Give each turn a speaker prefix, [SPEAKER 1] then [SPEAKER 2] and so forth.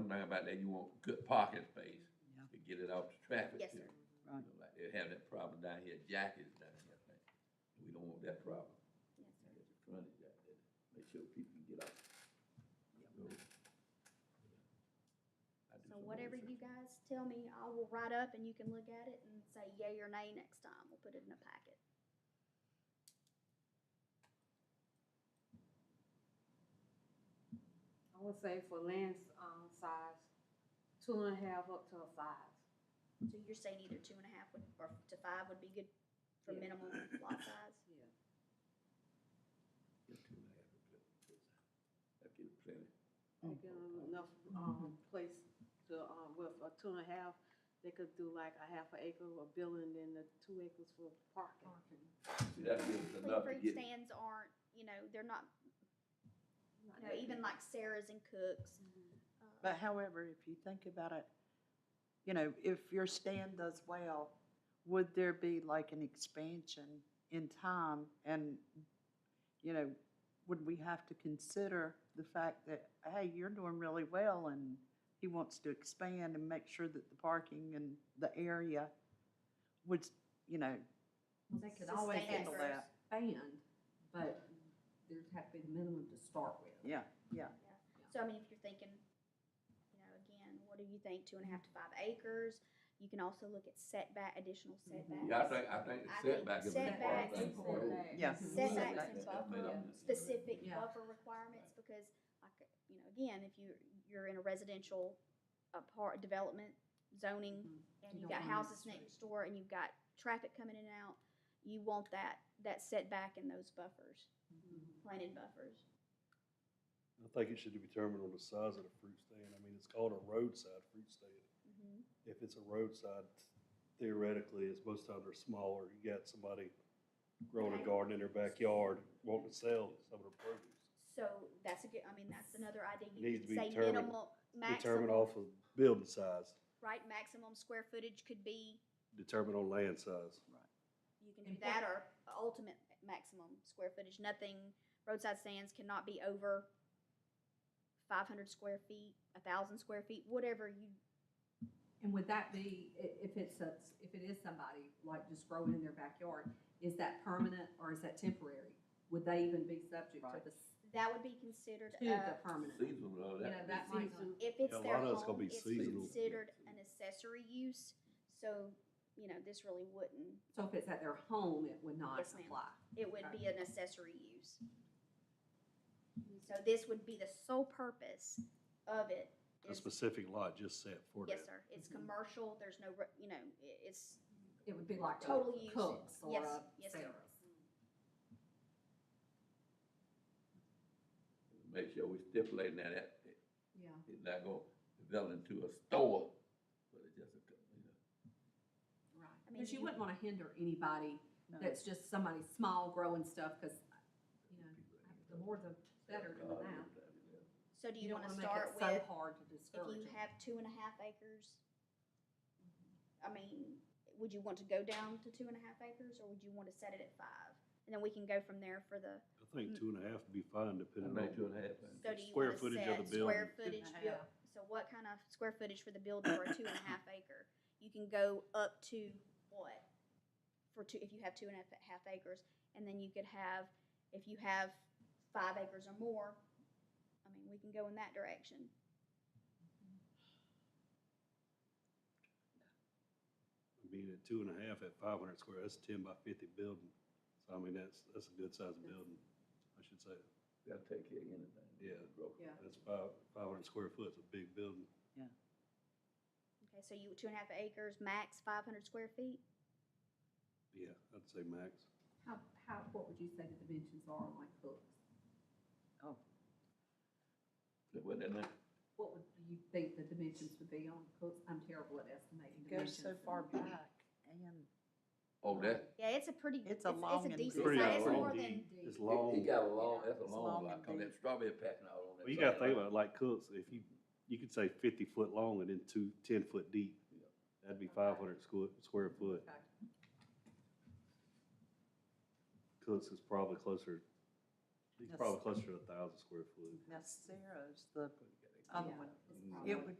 [SPEAKER 1] about that, you want good parking space
[SPEAKER 2] Yeah.
[SPEAKER 1] to get it off the traffic.
[SPEAKER 3] Yes,
[SPEAKER 1] here.
[SPEAKER 3] sir.
[SPEAKER 2] Right.
[SPEAKER 1] You know, Like, they have that problem down here, Jack is down here, I think. we don't want that problem.
[SPEAKER 3] Yes, sir.
[SPEAKER 1] There's a frontage out there, make sure people can get off. the road. I do
[SPEAKER 3] So
[SPEAKER 1] some
[SPEAKER 3] whatever
[SPEAKER 1] research.
[SPEAKER 3] you guys tell me, I will write up and you can look at it and say yay or nay next time. We'll put it in a packet.
[SPEAKER 4] I would say for Lynn's, um, size, two and a half up to a five.
[SPEAKER 3] So you're saying either two and a half would, or to five would be good for
[SPEAKER 4] Yeah.
[SPEAKER 3] minimum lot size?
[SPEAKER 4] Yeah.
[SPEAKER 1] Get two and a half, That'd get plenty.
[SPEAKER 4] They give them enough,
[SPEAKER 5] Mm-hmm.
[SPEAKER 4] um, place to, um, with a two and a half, they could do like a half an acre of a building and the two acres for parking.
[SPEAKER 1] See, that'd give us enough to
[SPEAKER 3] Fruit
[SPEAKER 1] get,
[SPEAKER 3] stands aren't, you know, they're not, you know, even like Sarah's and Cook's. uh,
[SPEAKER 5] Mm-hmm.
[SPEAKER 2] But however, if you think about it, you know, if your stand does well, would there be like an expansion in time? And, you know, would we have to consider the fact that, hey, you're doing really well and he wants to expand and make sure that the parking and the area would, you know,
[SPEAKER 5] Well, They could always
[SPEAKER 3] Sustain it
[SPEAKER 2] handle
[SPEAKER 5] expand,
[SPEAKER 3] first.
[SPEAKER 2] that?
[SPEAKER 5] but there'd have to be the minimum to start with.
[SPEAKER 2] Yeah, yeah.
[SPEAKER 3] So I mean, if you're thinking, you know, again, what do you think, two and a half to five acres? You can also look at setback, additional setbacks.
[SPEAKER 1] Mm-hmm. yeah, I think, I think the
[SPEAKER 3] I think
[SPEAKER 1] setback is. an important
[SPEAKER 3] setbacks-
[SPEAKER 1] thing for the road.
[SPEAKER 2] Yes.
[SPEAKER 5] Mm-hmm.
[SPEAKER 3] Setbacks and
[SPEAKER 1] That's made up.
[SPEAKER 3] specific
[SPEAKER 5] Yeah.
[SPEAKER 3] buffer requirements, because like, you know, again, if you, you're in a residential apart, development zoning, and
[SPEAKER 5] Mm-hmm. You
[SPEAKER 3] you've got
[SPEAKER 5] don't want that
[SPEAKER 3] houses next door, and you've got traffic coming in and out, you want that, that setback in those buffers,
[SPEAKER 5] Mm-hmm.
[SPEAKER 3] planted buffers.
[SPEAKER 6] I think it should be determined on the size of the fruit stand. I mean, it's called a roadside fruit stand.
[SPEAKER 3] Mhm.
[SPEAKER 5] Mm-hmm.
[SPEAKER 6] If it's a roadside, theoretically, it's most times they're smaller. You got somebody growing a garden in their backyard, wanting to sell some of their produce.
[SPEAKER 3] So that's a good, I mean, that's another idea, you
[SPEAKER 6] Needs
[SPEAKER 3] could
[SPEAKER 6] to be
[SPEAKER 3] say
[SPEAKER 6] determined-
[SPEAKER 3] minimal,
[SPEAKER 6] Determined
[SPEAKER 3] maximum,
[SPEAKER 6] off of building size,
[SPEAKER 3] right, maximum square footage could be,
[SPEAKER 6] determined on land size.
[SPEAKER 3] you can do that, or ultimate maximum square footage, nothing, roadside stands cannot be over five hundred square feet, a thousand square feet, whatever you,
[SPEAKER 5] And would that be, i- if it's, a- if it is somebody like just growing in their backyard, is that permanent or is that temporary? Would they even be subject to
[SPEAKER 2] Right.
[SPEAKER 5] the, s-
[SPEAKER 3] that would be considered,
[SPEAKER 5] to
[SPEAKER 3] uh,
[SPEAKER 5] the permanent?
[SPEAKER 1] Seasonal, though,
[SPEAKER 5] You know,
[SPEAKER 1] that,
[SPEAKER 5] that might not.
[SPEAKER 3] if
[SPEAKER 6] Yeah,
[SPEAKER 3] it's
[SPEAKER 6] a
[SPEAKER 3] their
[SPEAKER 6] lot of it's gonna
[SPEAKER 3] home,
[SPEAKER 6] be
[SPEAKER 3] it's
[SPEAKER 6] seasonal.
[SPEAKER 3] considered an accessory use, so, you know, this really wouldn't,
[SPEAKER 5] So if it's at their home, it would not
[SPEAKER 3] Yes, ma'am.
[SPEAKER 5] apply?
[SPEAKER 3] it would be an accessory use. So this would be the sole purpose of it.
[SPEAKER 6] A
[SPEAKER 3] is-
[SPEAKER 6] specific lot just set for that.
[SPEAKER 3] Yes, sir. It's commercial. There's no, re- you know, i- it's,
[SPEAKER 5] It would be like
[SPEAKER 3] Total use
[SPEAKER 5] a
[SPEAKER 3] it.
[SPEAKER 5] Cook's or
[SPEAKER 3] Yes,
[SPEAKER 5] a
[SPEAKER 3] yes, ma'am.
[SPEAKER 5] Sarah's.
[SPEAKER 1] make sure we stipulate that, that
[SPEAKER 5] Yeah.
[SPEAKER 1] it's not gonna develop into a store, but it's just a, co- you know,
[SPEAKER 5] Right,
[SPEAKER 3] I mean,
[SPEAKER 5] because you
[SPEAKER 3] you-
[SPEAKER 5] wouldn't want to hinder anybody
[SPEAKER 2] No.
[SPEAKER 5] that's just somebody small growing stuff, because, you know,
[SPEAKER 1] people that need
[SPEAKER 5] the more the better than that.
[SPEAKER 3] so do you
[SPEAKER 5] don't
[SPEAKER 3] want to
[SPEAKER 5] wanna make it
[SPEAKER 3] start
[SPEAKER 5] So
[SPEAKER 3] with,
[SPEAKER 5] hard to
[SPEAKER 3] if
[SPEAKER 5] discourage
[SPEAKER 3] you
[SPEAKER 5] it.
[SPEAKER 3] have two and a half acres? I mean, would you want to go down to two and a half acres or would you want to set it at five? And then we can go from there for the,
[SPEAKER 6] I think two and a half would be fine
[SPEAKER 1] It'll
[SPEAKER 6] depending
[SPEAKER 1] make
[SPEAKER 6] on,
[SPEAKER 1] two and a half. man.
[SPEAKER 3] so do you
[SPEAKER 6] Square
[SPEAKER 3] want to
[SPEAKER 6] footage of
[SPEAKER 3] set
[SPEAKER 6] the
[SPEAKER 3] square
[SPEAKER 6] building.
[SPEAKER 3] footage?
[SPEAKER 5] Two and a
[SPEAKER 3] buil-
[SPEAKER 5] half.
[SPEAKER 3] So what kind of square footage for the building for a two and a half acre? You can go up to what? For two, if you have two and a half acres, and then you could have, if you have five acres or more, I mean, we can go in that direction.
[SPEAKER 6] I mean, at two and a half at five hundred square, that's ten by fifty building. So I mean, that's, that's a good sized building, I should say.
[SPEAKER 1] They'll take care of anything.
[SPEAKER 6] Yeah.
[SPEAKER 1] Broke.
[SPEAKER 5] Yeah.
[SPEAKER 6] That's five, five hundred square foot, it's a big building.
[SPEAKER 3] Okay, so you, two and a half acres, max five hundred square feet?
[SPEAKER 6] Yeah, I'd say max.
[SPEAKER 5] How, how, what would you say the dimensions are on like Cook's?
[SPEAKER 1] What that name?
[SPEAKER 5] What would you think the dimensions would be on Cook's? I'm terrible at estimating
[SPEAKER 2] It goes
[SPEAKER 5] dimensions.
[SPEAKER 2] so far back and
[SPEAKER 1] Oh, that,
[SPEAKER 3] Yeah, it's a pretty,
[SPEAKER 2] It's
[SPEAKER 3] it's,
[SPEAKER 2] a
[SPEAKER 3] it's
[SPEAKER 2] long
[SPEAKER 3] a
[SPEAKER 2] and
[SPEAKER 3] decent
[SPEAKER 1] Pretty
[SPEAKER 3] size, it's
[SPEAKER 1] long
[SPEAKER 3] more than,
[SPEAKER 6] indeed.
[SPEAKER 5] Indeed.
[SPEAKER 6] It's
[SPEAKER 1] he
[SPEAKER 6] long.
[SPEAKER 1] got a long, that's a
[SPEAKER 2] It's
[SPEAKER 1] long
[SPEAKER 2] long
[SPEAKER 1] lot, cause that
[SPEAKER 2] indeed.
[SPEAKER 1] strawberry patch and all on that.
[SPEAKER 6] Well, you gotta
[SPEAKER 1] side.
[SPEAKER 6] think about it, like Cooks, if you, you could say fifty foot long and then two, ten foot deep.
[SPEAKER 1] Yeah.
[SPEAKER 6] That'd be five hundred square, square foot.
[SPEAKER 5] Okay.
[SPEAKER 6] Cooks is probably closer, he's
[SPEAKER 2] Yes.
[SPEAKER 6] probably closer to a thousand square foot.
[SPEAKER 2] that's Sarah's, the
[SPEAKER 1] You gotta-
[SPEAKER 2] other
[SPEAKER 5] Yeah,
[SPEAKER 2] one.
[SPEAKER 5] it's probably-
[SPEAKER 2] It would